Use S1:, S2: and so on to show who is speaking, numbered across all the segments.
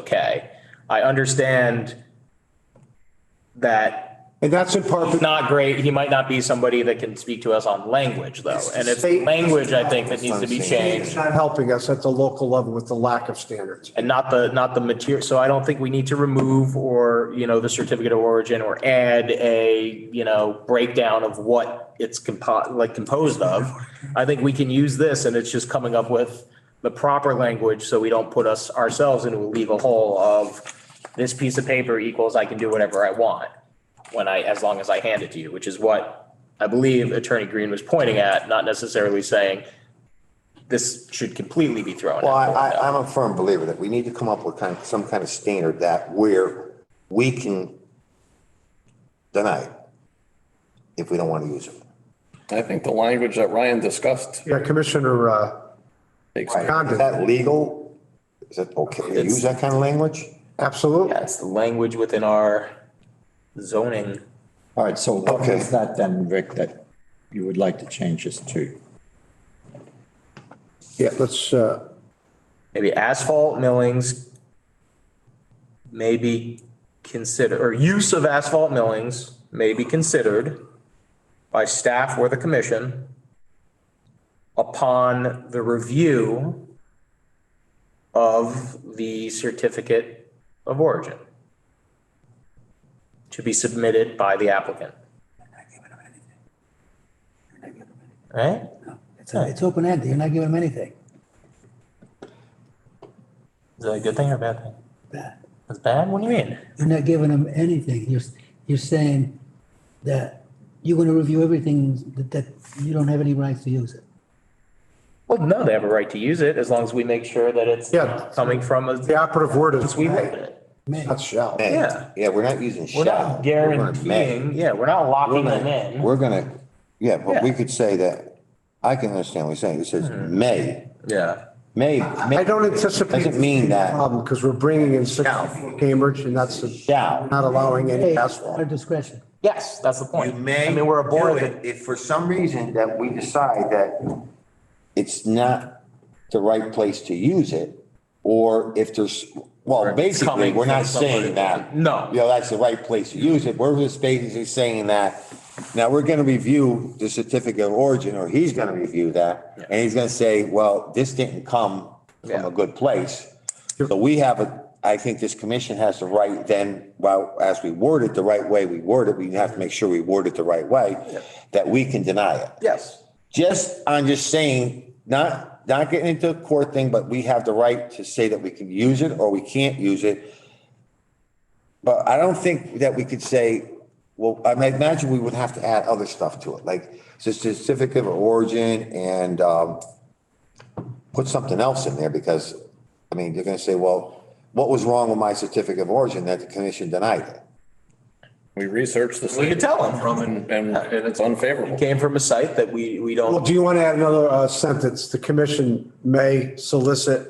S1: okay. I understand that
S2: And that's in part,
S1: it's not great, he might not be somebody that can speak to us on language though. And it's
S2: state-
S1: language, I think, that needs to be
S2: it's
S1: changed
S2: not helping us at the local level with the lack of standards.
S1: and not the, not the material. So I don't think we need to remove or, you know, the certificate of origin or add a, you know, breakdown of what it's compo, like composed of. I think we can use this and it's just coming up with the proper language so we don't put us ourselves into a legal hole of this piece of paper equals I can do whatever I want when I, as long as I hand it to you, which is what I believe Attorney Green was pointing at, not necessarily saying this should completely be thrown out.
S3: Well, I, I, I'm a firm believer that we need to come up with kind of, some kind of standard that where we can deny it if we don't want to use it.
S4: I think the language that Ryan discussed
S2: Yeah, Commissioner, uh,
S4: takes.
S2: Condon.
S3: Is that legal? Is it okay to use that kind of language?
S2: absolutely.
S1: Yeah, it's the language within our zoning.
S5: All right, so what
S3: Okay.
S5: is that then, Rick, that you would like to change this to?
S2: Yeah, let's, uh,
S1: Maybe asphalt millings may be considered, or use of asphalt millings may be considered by staff or the commission upon the review of the certificate of origin to be submitted by the applicant, right?
S6: It's, it's open ended. You're not giving them anything.
S1: Is that a good thing or a bad thing?
S6: Bad.
S1: That's bad? What do you mean?
S6: You're not giving them anything. You're, you're saying that you're going to review everything that, that you don't have any rights to use it.
S1: Well, no, they have a right to use it as long as we make sure that it's
S2: Yeah.
S1: coming from a,
S2: the operative word is,
S1: since we wrote it.
S6: May.
S2: not shall.
S3: May.
S1: Yeah.
S3: Yeah, we're not using
S1: We're
S3: shall.
S1: not
S3: We're gonna may.
S1: guaranteeing, yeah, we're not locking them in.
S3: We're gonna, yeah, but we
S1: Yeah. Hmm.
S3: could say that, I can understand what you're saying. It says may,
S1: Yeah.
S3: may.
S2: I don't anticipate.
S3: Doesn't mean that
S2: Problem, because we're bringing in six Cambridge and that's a-
S3: shall.
S2: not allowing any
S6: Hey, Our
S2: asphalt.
S6: discretion.
S1: Yes, that's the point.
S3: You may.
S1: I mean, we're a board
S3: do
S1: that,
S3: it If for some reason that we decide that it's not the right place to use it, or if there's, well,
S1: It's
S3: basically,
S1: coming
S3: we're not
S1: from somebody.
S3: saying that.
S1: No.
S3: You know, that's the right place to use it. We're just basically saying that, now we're gonna review the certificate of origin, or he's gonna review that.
S1: Yeah.
S3: And he's gonna say, well, this didn't come from
S1: Yeah.
S3: a good place. So we have a, I think this commission has the right then, well, as we word it the right way, we word it, we have to make sure we word it the right way, that we can deny it.
S1: yes,
S3: Just, I'm just saying, not, not getting into a court thing, but we have the right to say that we can use it or we can't use it. But I don't think that we could say, well, I mean, I imagine we would have to add other stuff to it, like certificate of origin and, um, put something else in there because, I mean, they're gonna say, well, what was wrong with my certificate of origin that the commission denied it?
S4: We researched this.
S1: We could tell them.
S4: From and, and and it's unfavorable.
S1: came from a site that we, we
S2: Well,
S1: don't,
S2: do you want to add another uh, sentence? The commission may solicit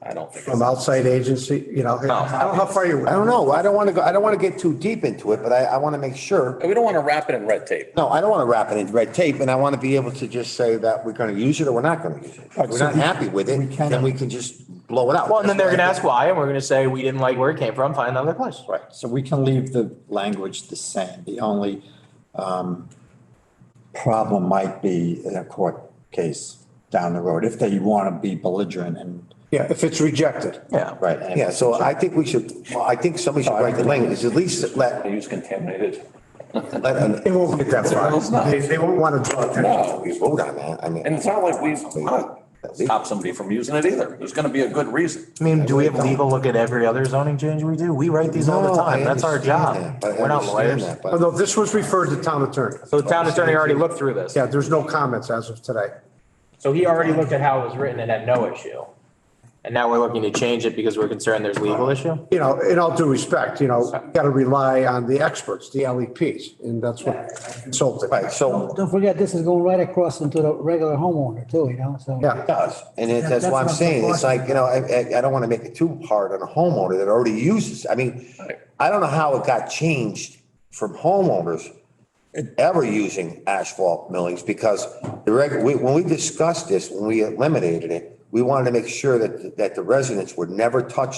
S4: I don't think.
S2: from outside agency, you know? I don't know how far you.
S3: I don't know. I don't wanna go, I don't wanna get too deep into it, but I, I wanna make sure
S4: We don't want to wrap it in red tape.
S3: No, I don't want to wrap it in red tape, and I want to be able to just say that we're going to use it or we're not going to use it. If we're not happy with it, then we can just blow it out.
S1: well, and then they're gonna ask why, and we're gonna say we didn't like where it came from, find another place. Right.
S5: So we can leave the language the same. The only um, problem might be in a court case down the road, if they want to be belligerent and,
S2: Yeah, if it's rejected.
S1: Yeah.
S5: right. and-
S3: Yeah, so I think we should, well, I think somebody should write the language, at least let,
S4: They use contaminated.
S3: let,
S2: It
S3: an-
S2: won't get that far. They, they won't want to draw attention.
S4: No.
S3: we vote on that, I
S4: And
S3: mean.
S4: it's not like we stop somebody from using it either. There's going to be a good reason.
S1: I mean, do we have legal look at every other zoning change we do? We write these all the
S3: No, I
S1: time. That's our job.
S3: understand that, but I
S1: We're not
S3: understand
S1: lawyers.
S3: that,
S2: Oh,
S3: but-
S2: no, this was referred to town attorney.
S1: So the town attorney already looked through this.
S2: Yeah, there's no comments as of today.
S1: So he already looked at how it was written and had no issue. And now we're looking to change it because we're concerned there's legal issue?
S2: You know, in all due respect, you know, got to rely on the experts, the LEPs, and that's what consulted.
S3: Right, so
S6: Don't forget, this is going right across into the regular homeowner too, you know, so.
S2: Yeah.
S3: it does, and it- that's why I'm saying, it's like, you know, I, I- I don't want to make it too hard on a homeowner that already uses, I mean, I don't know how it got changed from homeowners ever using asphalt millings because the reg, we- when we discussed this, when we eliminated it, we wanted to make sure that, that the residents were never touched